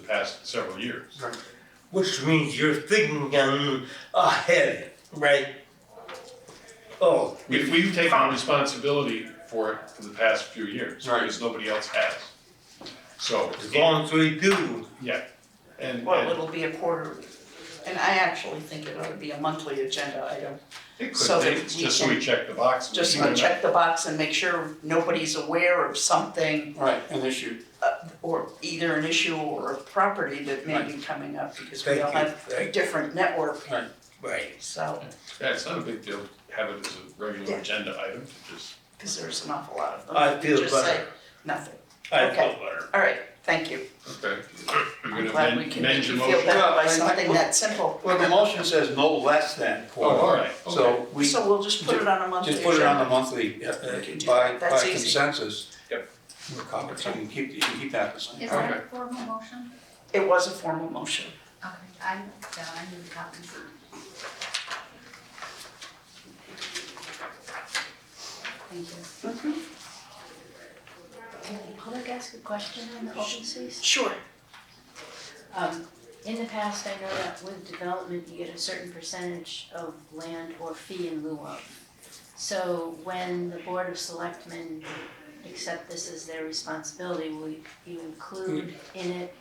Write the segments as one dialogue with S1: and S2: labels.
S1: past several years.
S2: which means you're thinking um, ahead, right? Oh,
S1: We've, we've taken on responsibility for it for the past few years,
S2: Right.
S1: because nobody else has. So,
S2: as long as we do,
S1: yeah, and,
S3: Well,
S1: and
S3: it'll be a quarterly, and I actually think it ought to be a monthly agenda item.
S1: it
S3: so
S1: could be,
S3: that
S1: it's
S3: we
S1: just so we
S3: can-
S1: check the box. we
S3: Just
S1: do
S3: to
S1: not-
S3: check the box and make sure nobody's aware of something,
S4: Right, an issue.
S3: or either an issue or a property that may be coming up, because we
S2: Thank
S3: all
S2: you.
S3: have a
S2: Thank
S3: different network,
S2: right,
S3: so,
S1: Yeah, it's not a big deal, to have it as a regular agenda item, to just,
S3: because there's an awful lot of them.
S2: I
S3: that
S2: feel
S3: just say
S2: better.
S3: Nothing,
S2: I
S3: Okay.
S2: feel better.
S3: all right, thank you.
S1: okay. You're
S3: I'm
S1: gonna
S3: glad we
S1: amend-
S3: can
S1: amend
S3: make
S1: your
S3: you
S1: motion.
S3: feel better
S4: Well, I
S3: by
S4: think
S3: something
S4: we-
S3: that simple.
S4: Well, the motion says no less than
S1: Oh, all
S4: quarterly.
S1: right, okay.
S4: So we just
S3: So we'll just put it on a monthly
S4: put it on the
S3: agenda.
S4: monthly, uh,
S3: can do
S4: by,
S3: that.
S4: by
S3: That's easy.
S4: consensus.
S1: Yep.
S4: We're covered, so you can keep, you can keep that the same.
S5: Is that a formal motion?
S3: It was a formal motion.
S5: Okay, I, yeah, I need copies. Thank you.
S6: Can the public ask a question on the open space?
S3: Sure.
S6: Um, in the past, I know that with development, you get a certain percentage of land or fee in lieu of. So when the Board of Selectmen accept this as their responsibility, will you you include in it?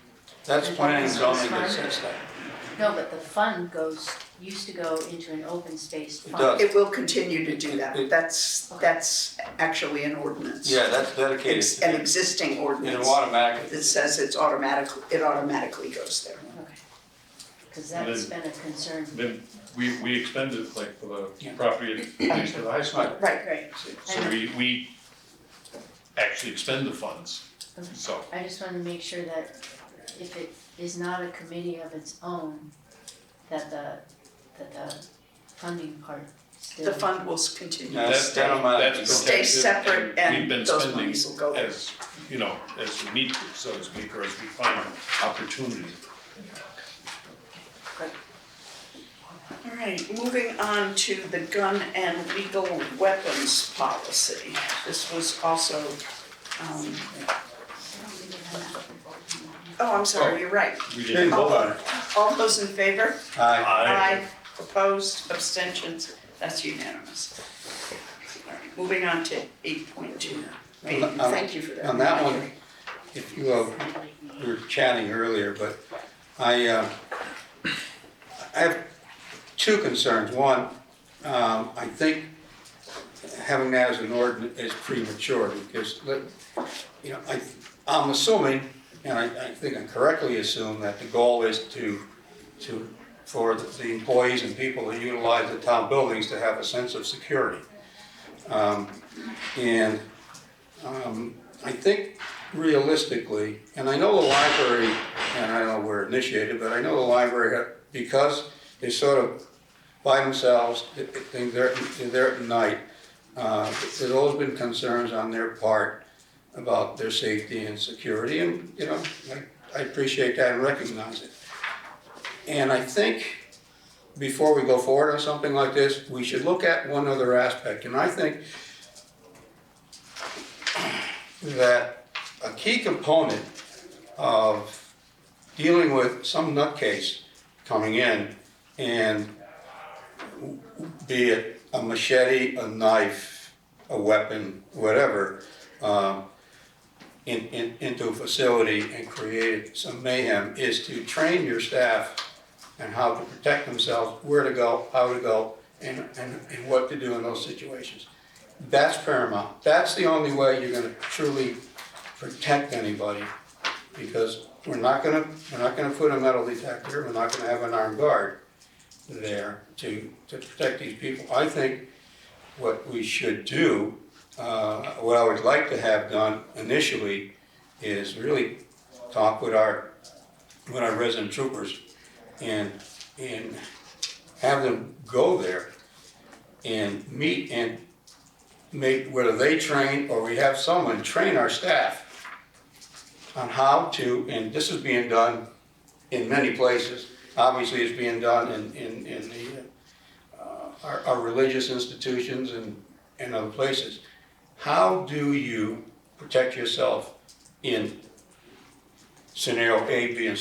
S4: That's
S6: And
S4: planning and
S6: that's
S4: zoning that
S6: fine.
S4: says that.
S6: No, but the fund goes, used to go into an open space
S4: It
S6: fund.
S4: does.
S3: It will continue to do that.
S4: It-
S3: That's, that's actually an ordinance.
S4: Yeah, that's
S3: It's an
S4: dedicated.
S3: existing
S4: It'll
S3: ordinance
S4: automatically,
S3: that says it's automatic, it automatically goes there.
S6: Because that's been a concern.
S1: Then we, we expended it like for the
S4: Yeah.
S1: property next to the high school.
S3: Right.
S6: Great.
S1: So we, we actually expend the funds, so,
S6: I just wanna make sure that if it is not a committee of its own, that the, that the funding part still.
S3: The fund will s- continue
S4: No,
S3: to
S4: that's-
S3: stay,
S4: that don't matter.
S1: that's
S3: stay
S1: protected,
S3: separate and
S1: we've been
S3: those
S1: spending
S3: monies will go there.
S1: as, you know, as we need to, so to speak, or as we find opportunity.
S3: All right, moving on to the gun and legal weapons policy. This was also, um,
S5: I don't think I have that.
S3: oh, I'm sorry, you're right.
S1: We
S4: Hey,
S1: did,
S4: hold on.
S3: All those in favor?
S4: Aye.
S1: Aye.
S3: Opposed, abstentions, that's unanimous. All right, Moving on to eight point two.
S4: Um,
S3: Thank you for that.
S4: on that one- If you, uh, we were chatting earlier, but I, uh, I have two concerns. One, um, I think having that as an ordinance is premature because, let- you know, I, I'm assuming, and I, I think I correctly assume that the goal is to, to, for the employees and people that utilize the town buildings to have a sense of security. Um, And um, I think realistically, and I know the library, and I don't know where it initiated, but I know the library, had- because they sort of by themselves, they- they- they're, they're at night, uh, there's always been concerns on their part about their safety and security, and, you know, I- I appreciate that and recognize it. And I think before we go forward on something like this, we should look at one other aspect, and I think that a key component of dealing with some nutcase coming in and be it a machete, a knife, a weapon, whatever, um, in, in, into a facility and create some mayhem is to train your staff and how to protect themselves, where to go, how to go, and, and, and what to do in those situations. That's paramount. That's the only way you're gonna truly protect anybody, because we're not gonna, we're not gonna put a metal detector, we're not gonna have an armed guard there to, to protect these people. I think what we should do, uh, what I would like to have done initially is really talk with our, with our resident troopers and, and have them go there and meet and make, whether they train or we have someone train our staff on how to, and this is being done in many places. Obviously, it's being done in, in, in the, uh, our, our religious institutions and, and other places. How do you protect yourself in scenario A, B, and